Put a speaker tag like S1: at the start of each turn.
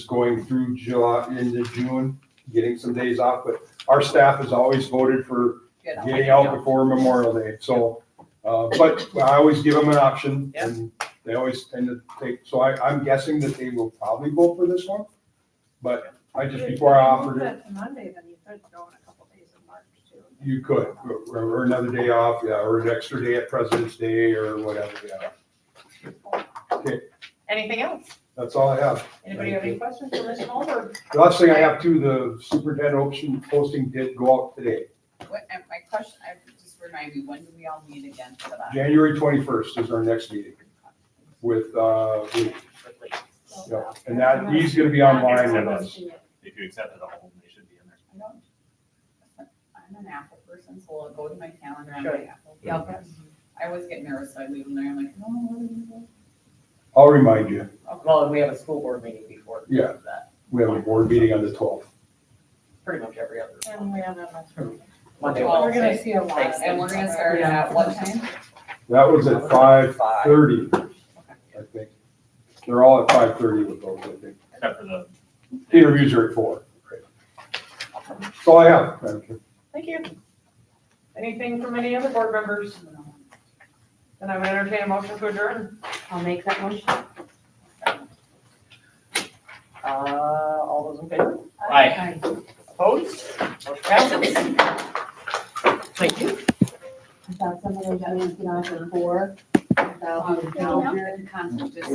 S1: going through July, into June, getting some days off, but our staff has always voted for
S2: Get out.
S1: getting out before Memorial Day, so. Uh, but I always give them an option and they always tend to take, so I, I'm guessing that they will probably vote for this one. But I just, before I offered it,
S3: If you put to Monday, then you could go in a couple days in March too.
S1: you could, or or another day off, yeah, or an extra day at President's Day or whatever, yeah.
S2: Anything else?
S1: That's all I have.
S2: Anybody have any questions for Mr. Holmberg?
S1: The last thing I have too, the superintendent option posting did go out today.
S4: What, and my question, I just remind me, when do we all meet again for that?
S1: January twenty-first is our next meeting with, uh, Lee.
S3: So-
S1: Yep. and that, he's gonna be online with us.
S5: If you accept it all, they should be in there.
S4: I don't- I'm an Apple person, so I'll go to my calendar on
S2: Sure.
S4: my Apple. I always get nervous, so I leave them there, I'm like, no, what are you doing?
S1: I'll remind you,
S2: Well, and we have a school board meeting before.
S1: Yeah.
S2: that,
S1: we have a board meeting on the twelfth.
S2: Pretty much every other
S3: And we have a.
S2: Monday.
S4: Well,
S3: We're
S2: Wednesday.
S3: gonna see a lot.
S2: Thanks.
S4: And we're gonna start it at what time?
S1: That was at five thirty,
S4: Okay.
S1: I think. They're all at five thirty with those, I think.
S5: Except for the
S1: Interviews are at four. That's all I have, Madam Chair.
S2: Thank you. Anything from any other board members? Then I would entertain a motion to adjourn.
S6: I'll make that motion.
S2: Uh, all those in favor?
S5: Aye.
S2: Opposed? Motion passes. Thank you.
S6: I thought somebody was gonna get on for four. About
S4: Um, no, I'm in conflict, just-